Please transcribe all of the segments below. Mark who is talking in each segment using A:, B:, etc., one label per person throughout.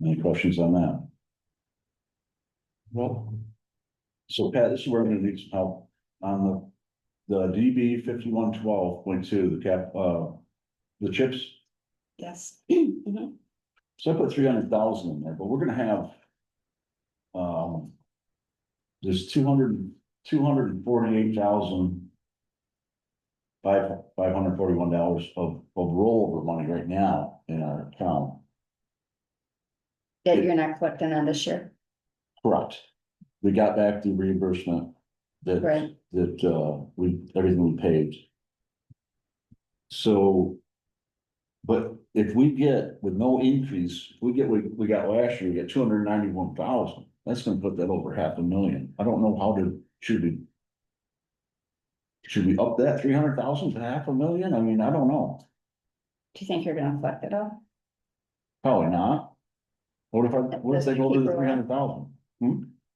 A: Any questions on that?
B: Well,
A: So Pat, this is where I'm gonna need some help on the, the DB fifty-one twelve point two, the cap, uh, the chips.
C: Yes. Mhm.
A: So I put three hundred thousand in there, but we're gonna have. Um. There's two hundred, two hundred and forty-eight thousand. Five, five hundred forty-one dollars of, of rollover money right now in our account.
C: That you're not collecting on this year,
A: Correct. We got back the reimbursement that,
C: Right.
A: that, uh, we, everything we paid. So. But if we get with no increase, we get, we, we got last year, we got two hundred ninety-one thousand. That's gonna put that over half a million. I don't know how to, should we? Should we up that three hundred thousand to half a million? I mean, I don't know.
C: do you think you're gonna collect it all?
A: Probably not. What if I, what if they go to the three hundred thousand?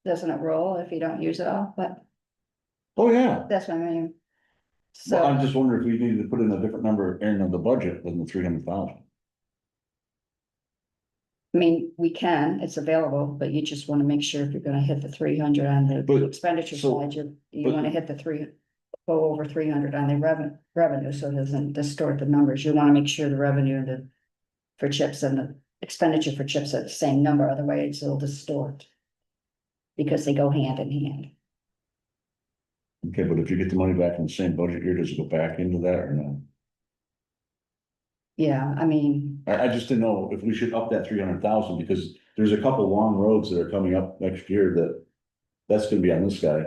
C: Doesn't it roll if you don't use it all, but
A: Oh, yeah.
C: that's what I mean.
A: Well,
C: So,
A: I'm just wondering if we needed to put in a different number in on the budget than the three hundred thousand.
C: I mean, we can, it's available, but you just wanna make sure if you're gonna hit the three hundred on
A: But-
C: the expenditure
A: so-
C: side, you, you
A: but-
C: wanna hit the three. Go over three hundred on the revenue, revenue, so it doesn't distort the numbers, you wanna make sure the revenue and the. For chips and the expenditure for chips are the same number, otherwise it'll distort. Because they go hand in hand.
A: Okay, but if you get the money back in the same budget year, does it go back into that or no?
C: Yeah, I mean,
A: I, I just didn't know if we should up that three hundred thousand because there's a couple long roads that are coming up next year that. That's gonna be on this guy.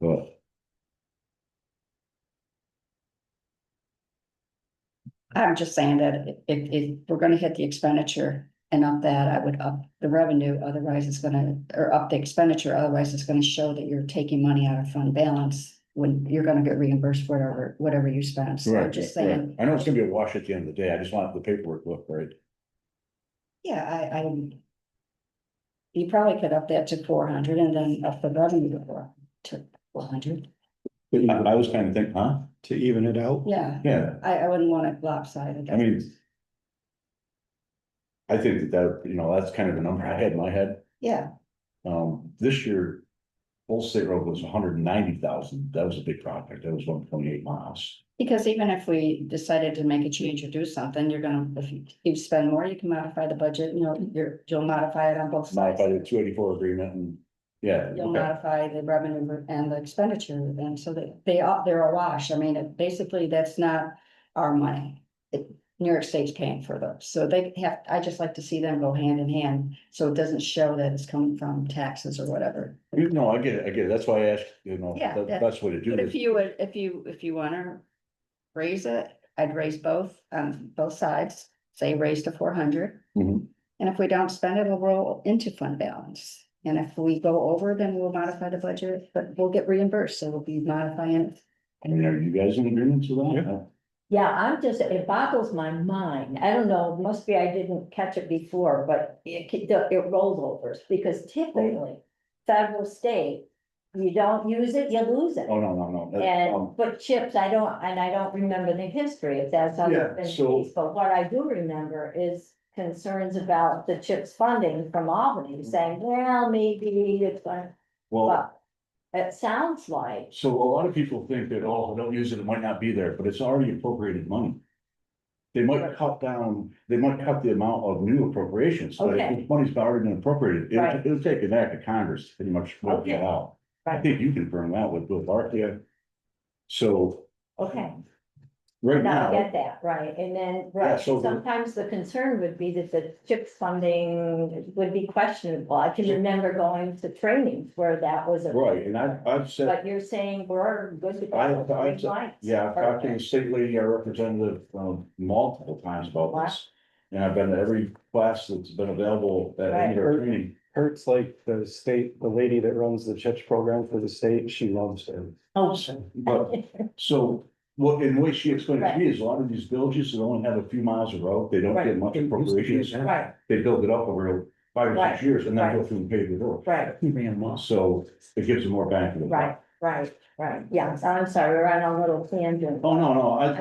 A: But
C: I'm just saying that if, if we're gonna hit the expenditure and up that, I would up the revenue, otherwise it's gonna, or up the expenditure, otherwise it's gonna show that you're taking money out of fund balance when you're gonna get reimbursed for whatever, whatever you spend. So I'm
A: right,
C: just
A: right.
C: saying,
A: I know it's gonna be a wash at the end of the day. I just want the paperwork look right.
C: yeah, I, I you probably could up that to four hundred and then up the revenue to four, to four hundred.
B: but
A: I,
B: even-
A: I was kind of thinking, huh?
B: to even it out,
C: Yeah,
A: Yeah,
C: I, I wouldn't want it lopsided.
A: I mean. I think that that, you know, that's kind of the number I had in my head.
C: Yeah,
A: Um, this year, Old State Road was hundred and ninety thousand. That was a big project. That was one point eight miles.
C: Because even if we decided to make a change or do something, you're gonna, if you, you spend more, you can modify the budget, you know, you're, you'll modify it on both sides.
A: Modified the two eighty-four agreement and, yeah,
C: You'll
A: okay,
C: modify the revenue and the expenditure, and so that they are, they're a wash, I mean, it- basically, that's not our money. It- New York State's paying for those, so they have, I just like to see them go hand in hand, so it doesn't show that it's coming from taxes or whatever.
A: You- no, I get it, I get it. That's why I asked, you know,
C: Yeah,
A: the
C: that-
A: best way to do
C: But if
A: this.
C: you would, if you, if you wanna raise it, I'd raise both, um, both sides, say raise to four hundred.
A: Mhm.
C: And if we don't spend it, it'll roll into fund balance. And if we go over, then we'll modify the budget, but we'll get reimbursed, so we'll be modifying it.
A: I mean, are you guys in agreement to
B: Yeah.
A: that?
D: Yeah, I'm just, it boggles my mind. I don't know, must be I didn't catch it before, but it, c- the- it rolls over because typically federal state, you don't use it, you lose it.
A: Oh, no, no, no. that-
D: And,
A: um,
D: but chips, I don't, and I don't remember the history if that's how
A: Yeah,
D: it's been
A: so-
D: used. But what I do remember is concerns about the chips funding from Albany saying, well, maybe it's going,
A: Well,
D: but it sounds like,
A: so a lot of people think that, oh, don't use it, it might not be there, but it's already appropriated money. They might cut down, they might cut the amount of new appropriations, but
D: Okay.
A: if money's already been appropriated,
D: Right.
A: it'll, it'll take an act of Congress to pretty much work
D: Okay.
A: that out. I
D: Right.
A: think you confirmed that with Bill Barclay. So
D: okay.
A: right
D: Now,
A: now,
D: I get that, right, and then, right,
A: so the-
D: sometimes the concern would be that the CHIPS funding would be questionable. I can remember going to trainings where that was. a-
A: right, and I, I've said,
D: But you're saying we're good to go.
A: I-
D: with
A: I-
D: green lights.
A: yeah, I've talked to the state lady, our representative, um, multiple times about this. And I've been to every class that's been available at any of our
B: Right.
A: training.
B: hurts like the state, the lady that runs the CHIPS program for the state, she loves it.
D: Perfect.
A: But, so, what, in way she explained it to me is a lot of these villages that only have a few miles of road, they don't
D: Right.
A: get much appropriations.
D: Oh, Right,
A: They build it up over five or six
D: Right.
A: years and then go
D: Right.
A: through and pave the road.
D: right,
A: So it gives them more bang for the buck.
D: right, right, right, yeah, I'm sorry, we're on a little tangent.
A: Oh, no, no, I,